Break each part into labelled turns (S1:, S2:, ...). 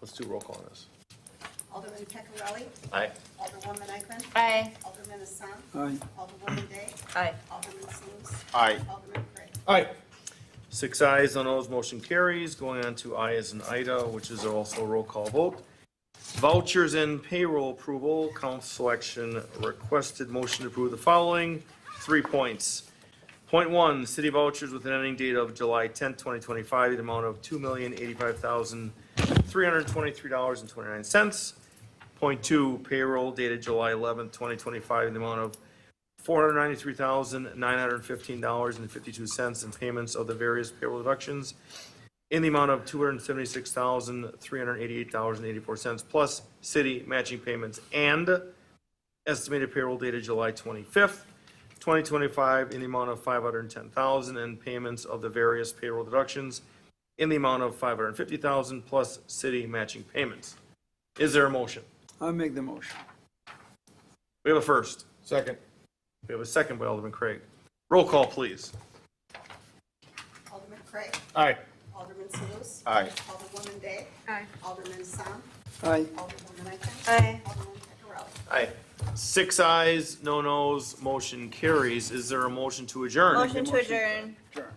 S1: Let's do roll call on this.
S2: Alderman Peccarelli.
S3: Aye.
S2: Alderwoman Eichman.
S4: Aye.
S2: Alderman Assam.
S5: Aye.
S2: Alderwoman Day.
S4: Aye.
S2: Alderman Salus.
S3: Aye.
S2: Alderman Gray.
S1: All right.
S3: Six ayes on those, motion carries. Going on to I as in Ida, which is also a roll call vote. Vouchers and payroll approval, council action requested motion to approve the following, three points. Point one, city vouchers with an ending date of July tenth, twenty twenty-five, the amount of two million eighty-five thousand three hundred twenty-three dollars and twenty-nine cents. Point two, payroll dated July eleventh, twenty twenty-five, the amount of four hundred ninety-three thousand, nine hundred fifteen dollars and fifty-two cents in payments of the various payroll deductions in the amount of two hundred seventy-six thousand, three hundred eighty-eight dollars and eighty-four cents, plus city matching payments and estimated payroll dated July twenty-fifth, twenty twenty-five, in the amount of five hundred and ten thousand, and payments of the various payroll deductions in the amount of five hundred and fifty thousand, plus city matching payments. Is there a motion?
S5: I make the motion.
S3: We have a first.
S1: Second.
S3: We have a second by Alderman Craig. Roll call, please.
S2: Alderman Craig.
S1: Aye.
S2: Alderman Salus.
S3: Aye.
S2: Alderwoman Day.
S4: Aye.
S2: Alderman Assam.
S5: Aye.
S2: Alderwoman Eichman.
S4: Aye.
S2: Alderman Peccarelli.
S3: Aye. Six ayes, no nos, motion carries. Is there a motion to adjourn?
S4: Motion to adjourn.
S5: Sure.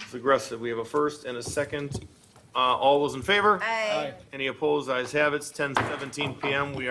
S3: It's aggressive. We have a first and a second. Uh, all those in favor?
S4: Aye.
S3: Any opposed? Ayes have it. It's ten seventeen PM. We are.